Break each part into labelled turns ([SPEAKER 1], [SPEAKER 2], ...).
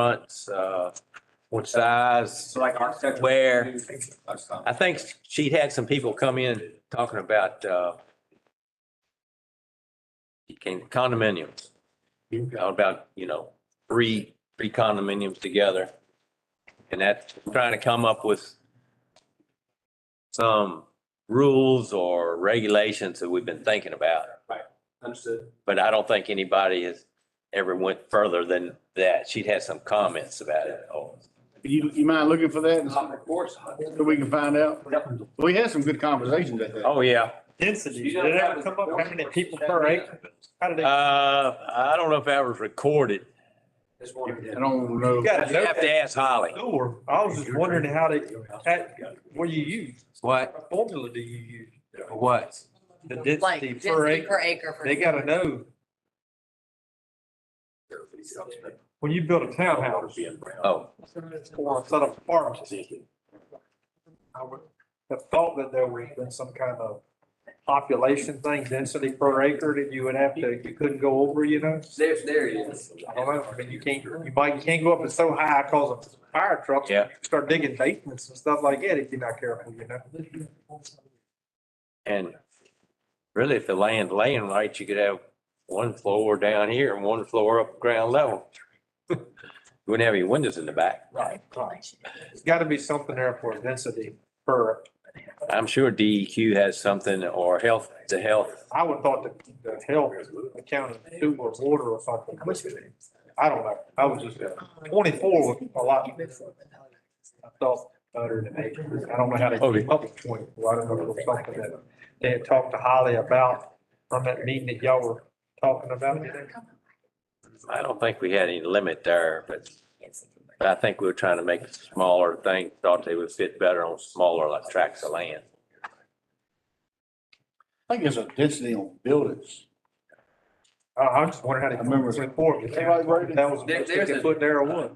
[SPEAKER 1] fronts, uh, what size,
[SPEAKER 2] So like architecture.
[SPEAKER 1] where.
[SPEAKER 2] That's not-
[SPEAKER 1] I think she had some people come in talking about, uh, condominiums. About, you know, three, three condominiums together. And that's trying to come up with some rules or regulations that we've been thinking about.
[SPEAKER 2] Understood.
[SPEAKER 1] But I don't think anybody has ever went further than that. She'd had some comments about it. Oh,
[SPEAKER 3] You, you mind looking for that and see
[SPEAKER 2] Of course.
[SPEAKER 3] if we can find out?
[SPEAKER 2] Yep.
[SPEAKER 3] We had some good conversations at that.
[SPEAKER 1] Oh, yeah.
[SPEAKER 4] density, did it ever come up, how many people per acre? How did
[SPEAKER 1] Uh,
[SPEAKER 4] they,
[SPEAKER 1] I don't know if that was recorded.
[SPEAKER 2] Just wondering.
[SPEAKER 3] I don't know.
[SPEAKER 4] you got a
[SPEAKER 1] You have to
[SPEAKER 4] note
[SPEAKER 1] ask Holly.
[SPEAKER 4] door, I was just wondering how they, that- what do you use?
[SPEAKER 1] What?
[SPEAKER 4] What formula do you use?
[SPEAKER 1] What?
[SPEAKER 4] The
[SPEAKER 5] Like
[SPEAKER 4] density
[SPEAKER 5] density
[SPEAKER 4] per acre,
[SPEAKER 5] per acre. for-
[SPEAKER 4] they gotta know, when you build a townhouse
[SPEAKER 1] Oh,
[SPEAKER 4] or a set of farms. I would have thought that there was been some kind of population thing, density per acre that you would have to, you couldn't go over, you know?
[SPEAKER 2] There, there it is.
[SPEAKER 4] I don't know, I mean, you can't, you might, you can't go up it so high cause of fire trucks.
[SPEAKER 1] Yeah.
[SPEAKER 4] Start digging basements and stuff like that if you're not careful, you know?
[SPEAKER 1] and really if the land laying right, you could have one floor down here and one floor up ground level. You Wouldn't have any windows in the back.
[SPEAKER 4] Right. There's gotta be something there for density per,
[SPEAKER 1] I'm sure DEQ has something or health, the health.
[SPEAKER 4] I would thought that the health, the county, sewer, water or something. I don't know, I was just, uh, twenty-four was a lot, I thought, better than eight, I don't know how to.
[SPEAKER 1] Okay.
[SPEAKER 4] Public twenty, I don't know if it was something that they had talked to Holly about from that meeting that y'all were talking about.
[SPEAKER 1] I don't think we had any limit there, but but I think we were trying to make it smaller things, thought they would fit better on smaller like tracts of land.
[SPEAKER 3] I think it's a density on buildings.
[SPEAKER 4] I, I just wonder how they.
[SPEAKER 3] I remember-
[SPEAKER 4] Report.
[SPEAKER 3] Everybody wrote it.
[SPEAKER 4] That was,
[SPEAKER 2] There- there's
[SPEAKER 4] they
[SPEAKER 2] a-
[SPEAKER 4] put there a one.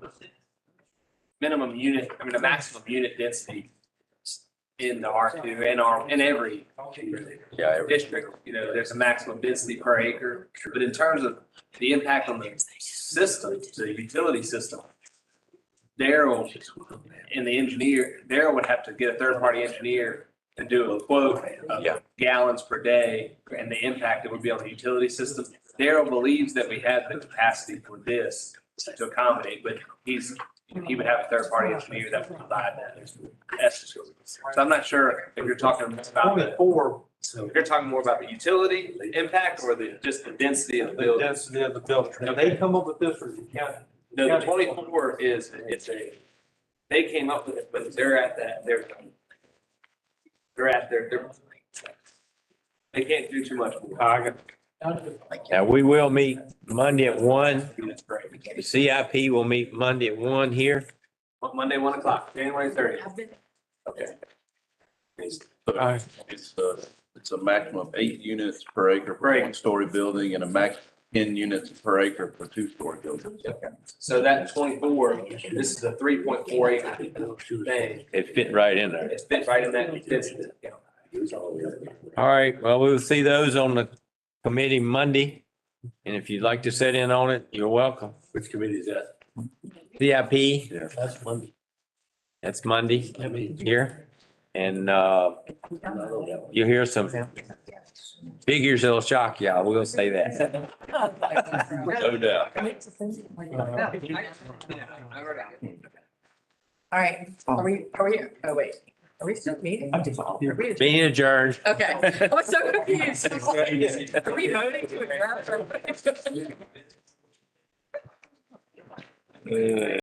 [SPEAKER 2] Minimum unit, I mean, a maximum unit density in the R two and R, in every
[SPEAKER 1] Yeah, it-
[SPEAKER 2] uh, district, you know, there's a maximum density per acre. But in terms of the impact on the system, the utility system, Daryl and the engineer, Daryl would have to get a third-party engineer and do a quote
[SPEAKER 1] Yeah.
[SPEAKER 2] of gallons per day and the impact it would be on the utility system. Daryl believes that we have the capacity for this to accommodate, but he's, he would have a third-party engineer that would provide that. That's- So I'm not sure if you're talking about the
[SPEAKER 4] Twenty-four,
[SPEAKER 2] if You're talking more about the utility impact or the, just the density of the
[SPEAKER 4] the
[SPEAKER 2] building?
[SPEAKER 4] density of the building, If they come up with this for the county.
[SPEAKER 2] No, the twenty-four is, it's a, they came up with it, but they're at that, they're, they're at their, they're, they can't do too much more.
[SPEAKER 4] I got-
[SPEAKER 1] Now, we will meet Monday at one.
[SPEAKER 2] That's great.
[SPEAKER 1] The CIP will meet Monday at one here.
[SPEAKER 2] Mon- Monday, one o'clock, January thirtieth.
[SPEAKER 5] I've been-
[SPEAKER 6] Okay. It's,
[SPEAKER 1] Aye.
[SPEAKER 6] it's, uh, it's a maximum of eight units per acre for
[SPEAKER 2] Right.
[SPEAKER 6] one-story building and a max ten units per acre for two-story buildings.
[SPEAKER 2] So that twenty-four, this is a three point four acre thing.
[SPEAKER 1] It fit right in there.
[SPEAKER 2] It's been right in that density.
[SPEAKER 1] All right, well, we will see those on the committee Monday. And if you'd like to sit in on it, you're welcome.
[SPEAKER 7] Which committee is that?
[SPEAKER 1] CIP,
[SPEAKER 7] That's Monday.
[SPEAKER 1] that's Monday
[SPEAKER 7] I mean,
[SPEAKER 1] here. And uh, you'll hear some figures that'll shock you. I will say that. No doubt.
[SPEAKER 5] All right, are we, are we, oh wait, are we still meeting? Are we-
[SPEAKER 1] Being adjourned.
[SPEAKER 5] Okay, I was so confused. I'm like, Are we voting to adjourn? or what?